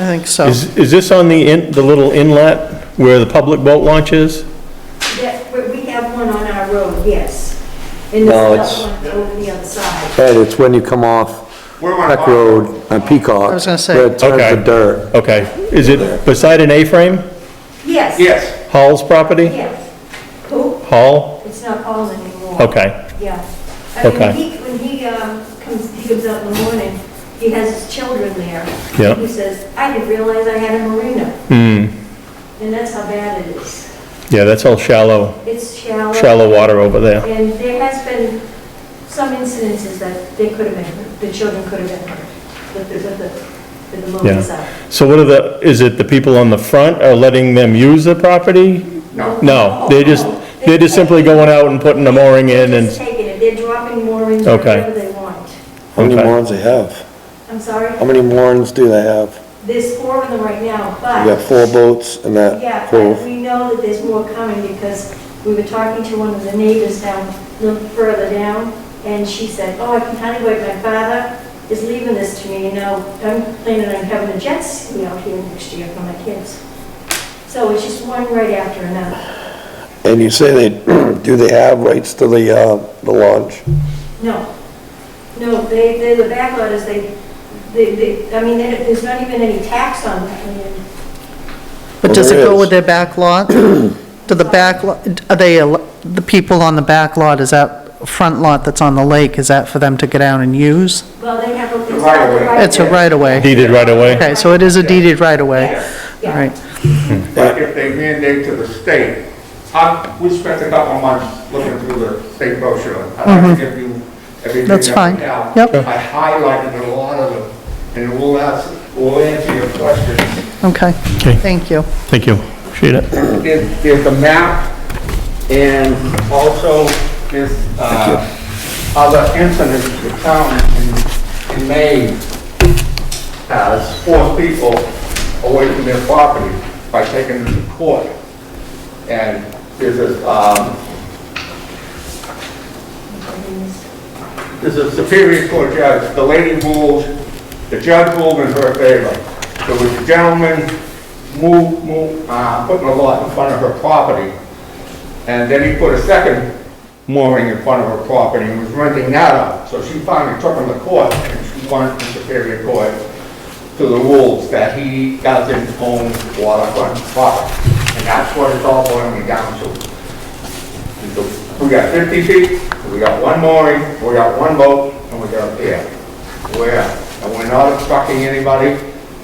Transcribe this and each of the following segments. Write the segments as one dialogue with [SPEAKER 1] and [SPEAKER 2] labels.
[SPEAKER 1] I think so.
[SPEAKER 2] Is, is this on the in, the little inlet where the public boat launch is?
[SPEAKER 3] That, but we have one on our road, yes. And
[SPEAKER 4] No,
[SPEAKER 3] there's
[SPEAKER 4] it's-
[SPEAKER 3] another one over the other side.
[SPEAKER 4] Ed, it's when you come off Peck Road on Peacock.
[SPEAKER 1] I was gonna say.
[SPEAKER 4] Where it turns
[SPEAKER 2] Okay.
[SPEAKER 4] to dirt.
[SPEAKER 2] Okay, is it beside an A-frame?
[SPEAKER 3] Yes.
[SPEAKER 5] Yes.
[SPEAKER 2] Hall's property?
[SPEAKER 3] Yes. Who?
[SPEAKER 2] Hall?
[SPEAKER 3] It's not Paul anymore.
[SPEAKER 2] Okay,
[SPEAKER 3] Yeah. I
[SPEAKER 2] Okay.
[SPEAKER 3] mean, he, when he, um, comes, he comes up in the morning, he has his children there.
[SPEAKER 2] Yeah.
[SPEAKER 3] He says, I didn't realize I had a marina,
[SPEAKER 2] hmm,
[SPEAKER 3] and that's how bad it is.
[SPEAKER 2] yeah, that's all shallow,
[SPEAKER 3] It's shallow.
[SPEAKER 2] shallow water over there.
[SPEAKER 3] And there has been some incidences that they could have been, the children could have been hurt, with the, with the, with the motor's out.
[SPEAKER 2] So what are the, is it the people on the front are letting them use the property?
[SPEAKER 5] No.
[SPEAKER 2] No, they're just, they're just simply going out and putting the mooring in
[SPEAKER 3] They're just
[SPEAKER 2] and,
[SPEAKER 3] taking it, they're dropping more in
[SPEAKER 2] Okay.
[SPEAKER 3] wherever they want.
[SPEAKER 4] How many
[SPEAKER 2] Okay.
[SPEAKER 4] moorings they have?
[SPEAKER 3] I'm
[SPEAKER 4] How
[SPEAKER 3] sorry,
[SPEAKER 4] many moorings do they have?
[SPEAKER 3] there's four of them right now,
[SPEAKER 4] You got
[SPEAKER 3] but,
[SPEAKER 4] four boats in
[SPEAKER 3] yeah, but
[SPEAKER 4] that cove.
[SPEAKER 3] we know that there's more coming because we were talking to one of the neighbors down, a little further down, and she said, oh, I can kind of wait, my father is leaving this to me, you know, I'm planning on having a jet ski out here next year for my kids. So it's just one right after another.
[SPEAKER 4] And you say they, do they have rights to the, uh, the launch?
[SPEAKER 3] No, no, they, they're the backlotters, they, they, they, I mean, there- there's not even any tax on that land.
[SPEAKER 1] But does it
[SPEAKER 4] Well, there
[SPEAKER 1] go
[SPEAKER 4] is.
[SPEAKER 1] with their back lot? Do the back, lo- are they, al- the people on the back lot, is that front lot that's on the lake, is that for them to go down and use?
[SPEAKER 3] Well, they have a...
[SPEAKER 5] The right of way.
[SPEAKER 1] It's a right-of-way.
[SPEAKER 2] deeded right away?
[SPEAKER 1] Okay, so it is a deeded right-of-way. All
[SPEAKER 3] Yes, yeah.
[SPEAKER 1] right,
[SPEAKER 5] But if they mandate to the state, I, we spent a couple of months looking through the state brochure. I'd like to give you everything
[SPEAKER 1] Mm-hmm. That's
[SPEAKER 5] that we
[SPEAKER 1] fine.
[SPEAKER 5] have.
[SPEAKER 1] Yep.
[SPEAKER 5] I highlighted a lot of them, and we'll ask, we'll answer your questions.
[SPEAKER 1] okay,
[SPEAKER 2] Okay,
[SPEAKER 1] thank you.
[SPEAKER 2] thank you, appreciate it.
[SPEAKER 5] There's, there's a map, and also there's, uh, other incidents the town in, in Maine has forced people away from their property by taking them to court. And there's this, um, This is Superior Court Judge, the lady ruled, the judge ruled in her favor. There was a gentleman moved, moved, uh, putting a lot in front of her property, and then he put a second mooring in front of her property and was renting that out. So she finally took him to court, and she won in Superior Court to the rules that he doesn't own waterfront property. And that's what it's all boiling down to. We got 50 feet, we got one mooring, we got one boat, and we got a pier. We're, and we're not obstructing anybody,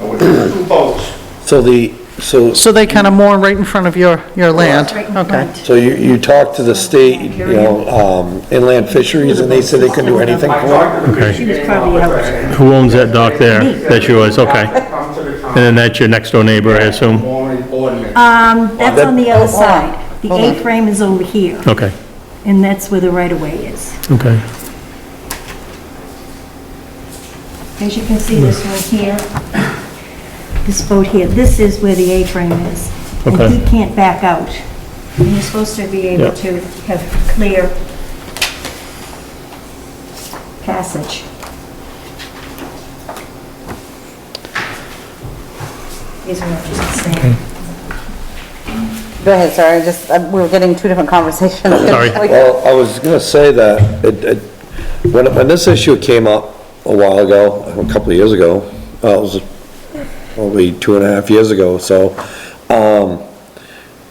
[SPEAKER 5] and we're just two boats.
[SPEAKER 4] So the, so,
[SPEAKER 1] So they kind of moor right in front of your, your land?
[SPEAKER 3] Right in
[SPEAKER 1] Okay,
[SPEAKER 3] front.
[SPEAKER 4] so you, you talked to the state, you know, um, inland fisheries, and they said they couldn't do anything
[SPEAKER 5] I
[SPEAKER 4] for
[SPEAKER 5] talked to the
[SPEAKER 2] Okay.
[SPEAKER 5] She was probably
[SPEAKER 2] Who owns that dock there? That's yours, okay.
[SPEAKER 5] Come to the
[SPEAKER 2] And then um, that's your next door neighbor, I assume?
[SPEAKER 5] Mooring ordinance.
[SPEAKER 6] Um, that's on the other
[SPEAKER 4] Hold on.
[SPEAKER 6] side. The A-frame is over here,
[SPEAKER 2] Okay,
[SPEAKER 6] and that's where the right-of-way is.
[SPEAKER 2] okay.
[SPEAKER 6] As you can see, this one here, this boat here, this is where the A-frame is.
[SPEAKER 2] Okay.
[SPEAKER 6] And he can't back out. And he's supposed to be
[SPEAKER 2] Yeah.
[SPEAKER 6] able to have clear passage. Is what I'm just saying.
[SPEAKER 7] Go ahead, sorry, I just, uh, we were getting two different conversations.
[SPEAKER 2] Sorry.
[SPEAKER 4] Well, I was gonna say that, it, it, when, when this issue came up a while ago, a couple of years ago, uh, it was probably two and a half years ago, so, um,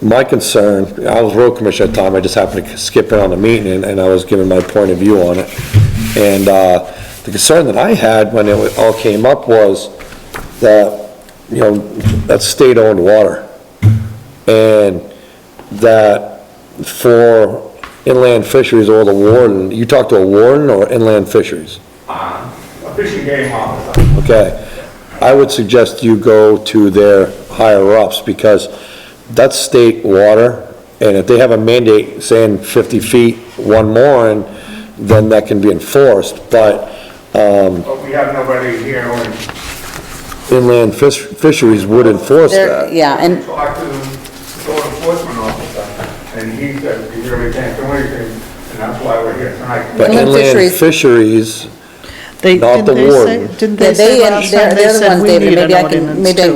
[SPEAKER 4] my concern, I was road commissioner at the time, I just happened to skip in on the meeting, and- and I was giving my point of view on it. And, uh, the concern that I had when it all came up was that, you know, that's state-owned water. And that for inland fisheries or the warden, you talk to a warden or inland fisheries?
[SPEAKER 5] A fishing game officer.
[SPEAKER 4] Okay, I would suggest you go to their higher-ups, because that's state water, and if they have a mandate saying 50 feet, one more, and then that can be enforced, but um,
[SPEAKER 5] But we have nobody here and
[SPEAKER 4] inland fish- fisheries would enforce
[SPEAKER 7] There-
[SPEAKER 4] that.
[SPEAKER 7] Yeah, and
[SPEAKER 5] talked to the code enforcement officer, and he said, you really can't do anything, and that's why we're here tonight.
[SPEAKER 4] But
[SPEAKER 7] Inland
[SPEAKER 4] inland
[SPEAKER 7] fisheries-
[SPEAKER 4] fisheries
[SPEAKER 1] They,
[SPEAKER 4] Not
[SPEAKER 1] didn't
[SPEAKER 4] the
[SPEAKER 1] they say,
[SPEAKER 4] warden.
[SPEAKER 1] didn't
[SPEAKER 7] they,
[SPEAKER 1] they say
[SPEAKER 7] they're
[SPEAKER 1] last time
[SPEAKER 7] they're
[SPEAKER 1] they
[SPEAKER 7] the
[SPEAKER 1] said
[SPEAKER 7] ones,
[SPEAKER 1] we
[SPEAKER 7] David,
[SPEAKER 1] need an
[SPEAKER 7] maybe I can,
[SPEAKER 1] ordinance
[SPEAKER 7] maybe I
[SPEAKER 1] too?
[SPEAKER 7] can